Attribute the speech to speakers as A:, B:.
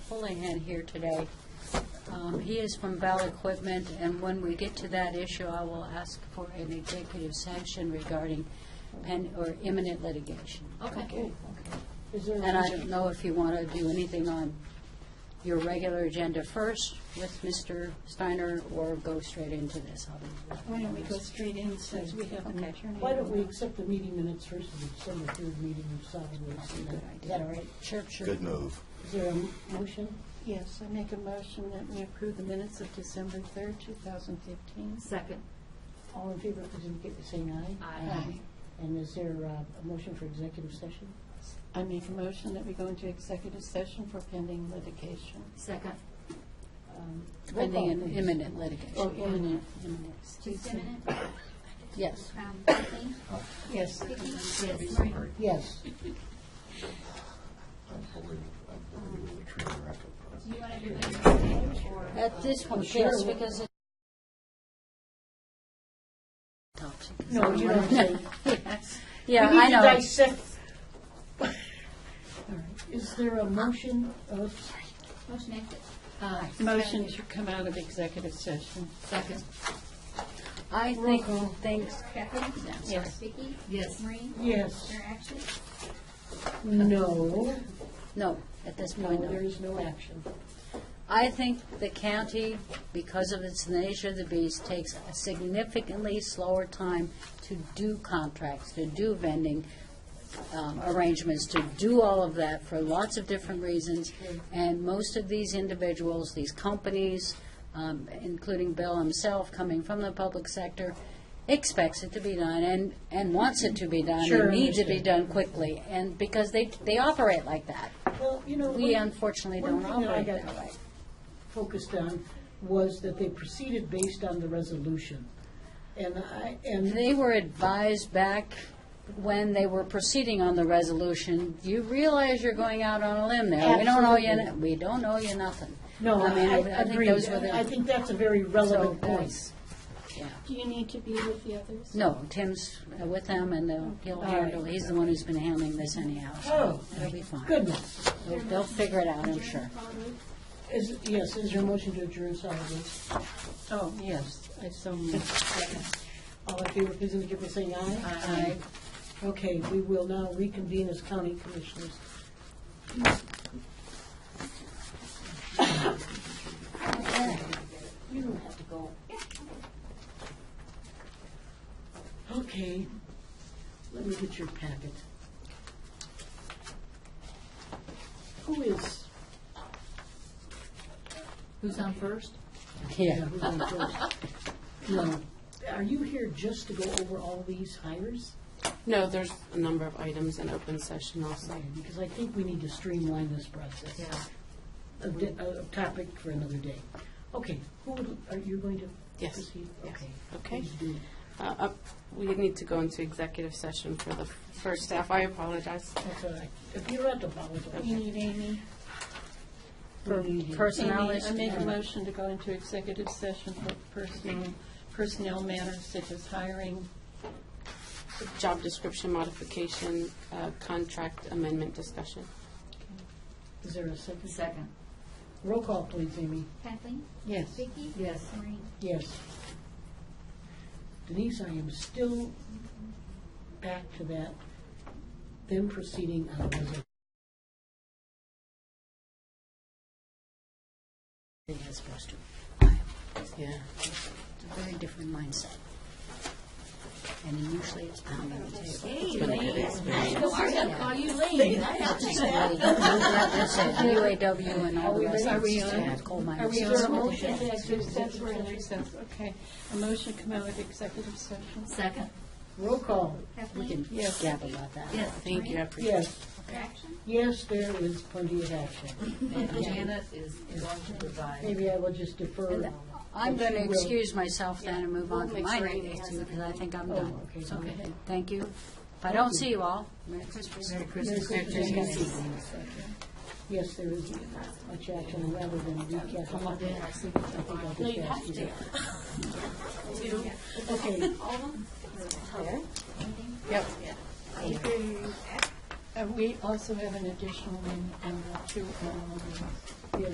A: Houlihan here today. Um, He is from Bell Equipment, and when we get to that issue, I will ask for an executive sanction regarding pen, or imminent litigation.
B: Okay.
C: Is there,
A: And I don't know if you want to do anything on your regular agenda first with Mr. Steiner, or go straight into this. I'll be-
B: Why don't we go straight in since we have an
A: Okay.
B: attorney?
C: why don't we accept the meeting minutes first of the December third meeting of solid waste? Is that all right?
A: Sure, sure.
D: Good move.
C: Is there a motion?
B: Yes, I make a motion that we approve the minutes of December 3rd, 2015.
E: Second.
C: All in favor, please indicate by saying aye.
E: Aye.
C: And is there uh, a motion for executive session?
B: I make a motion that we go into executive session for pending litigation.
E: Second.
C: Um, roll
A: Pending
C: call,
A: an
C: please.
A: imminent litigation.
B: Oh, imminent.
A: Imminent.
B: Excuse me.
A: Yes.
E: Um, Kathleen?
B: Yes.
E: Yes.
C: Yes.
E: You want to do it or?
A: At this one,
C: Sure.
A: yes, because it's toxic.
C: No, you don't say.
A: Yeah, I
C: We need to
A: know.
C: dissect. All right. Is there a motion? Oh, sorry.
E: Motion exit.
B: Motion to come out of executive session.
E: Second.
A: I think things,
E: Kathleen?
B: Yes.
E: Vicki?
A: Yes.
E: Maureen?
C: Yes.
E: Your actions?
C: No.
A: no, at this
C: No,
A: point,
C: there
A: no.
C: is no action.
A: I think the county, because of its nature of the beast, takes a significantly slower time to do contracts, to do vending um, arrangements, to do all of that for lots of different reasons. And most of these individuals, these companies, um, including Bill himself, coming from the public sector, expects it to be done and, and wants it to be done.
C: Sure,
A: and needs it to be
C: understand.
A: done quickly, and because they, they operate like that.
C: Well, you know.
A: We
C: one-
A: unfortunately
C: one
A: don't
C: thing that I
A: operate
C: got
A: that way.
C: Focused on was that they proceeded based on the resolution. And I, and
A: They were advised back when they were proceeding on the resolution, you realize you're going out on a limb there. We don't owe you,
C: Absolutely.
A: we don't owe you nothing.
C: no,
A: mean,
C: I
A: I think
C: agree.
A: those were the-
C: I think that's a very
A: So, uh,
C: relevant point.
A: that's-
F: Do you need to be with the others?
A: No, Tim's uh, with them and they'll- he'll
C: All
A: handle,
C: right.
A: he's the one who's been handling this anyhow.
C: Oh,
A: so It'll be fine.
C: goodness.
A: They'll- They'll figure it out, I'm sure.
F: Probably.
C: Is, yes, is your motion to adjourn solid waste?
B: Oh, yes, I so moved.
C: All in favor, please indicate by saying aye.
B: Aye.
C: Aye. Okay, we will now reconvene as county commissioners. You don't have to go. Okay, let me get your packet. Who is?
E: Who's on first?
A: Yeah.
C: who's on first? No, are you here just to go over all these hires?
G: No, there's a number of items in open session also.
C: Because I think we need to streamline this process. A di- A, a topic for another day. Okay, who would, are you going to
G: Yes,
C: proceed?
G: yes.
C: Okay.
G: Okay.
C: Please do.
G: Uh, up- We need to go into executive session for the first staff. I apologize.
C: That's all right. If you're at the bottom.
B: You need Amy?
A: For personnel
B: Amy,
A: is-
B: I make a motion to go into executive session for personal, personnel matters such as hiring.
G: Job description modification, uh, contract amendment discussion.
C: Is there a second?
E: Second.
C: Roll call, please, Amy.
F: Kathleen?
B: Yes.
F: Vicki?
E: Yes.
F: Maureen?
C: Yes. Denise, I am still back to that, then proceeding on resolution.
A: As opposed to,
G: Yeah.
A: it's a very different mindset. And usually it's pounding the table.
E: Are you late?
A: UAW and all the rest
B: Are
A: of
B: we
A: it's
B: on?
A: just coal
B: Are
A: miners.
B: we on?
C: motion to
B: executive session? We're in recess, okay. A motion to come out of executive session?
E: Second.
C: Roll call.
A: We can
F: Kathleen?
B: Yes.
A: gab about that.
E: Yes.
G: Thank you, I appreciate it.
C: Yes,
F: Your action?
C: yes, there is plenty of action.
E: Janet is going to provide.
C: Maybe I will just defer.
A: I'm going to
C: She will.
A: excuse myself then and move on to
G: We'll make
A: my
G: sure
A: next
G: Amy has
A: issue, because I think I'm
C: Oh,
A: done.
C: okay.
A: So, Thank you. If I don't see you all, Merry Christmas. Merry Christmas.
C: Yes, there is much action rather than recap. I think I'll just ask you. Okay,
F: All of them?
G: Yep.
F: If you-
B: Uh, We also have an additional one, uh, to, um,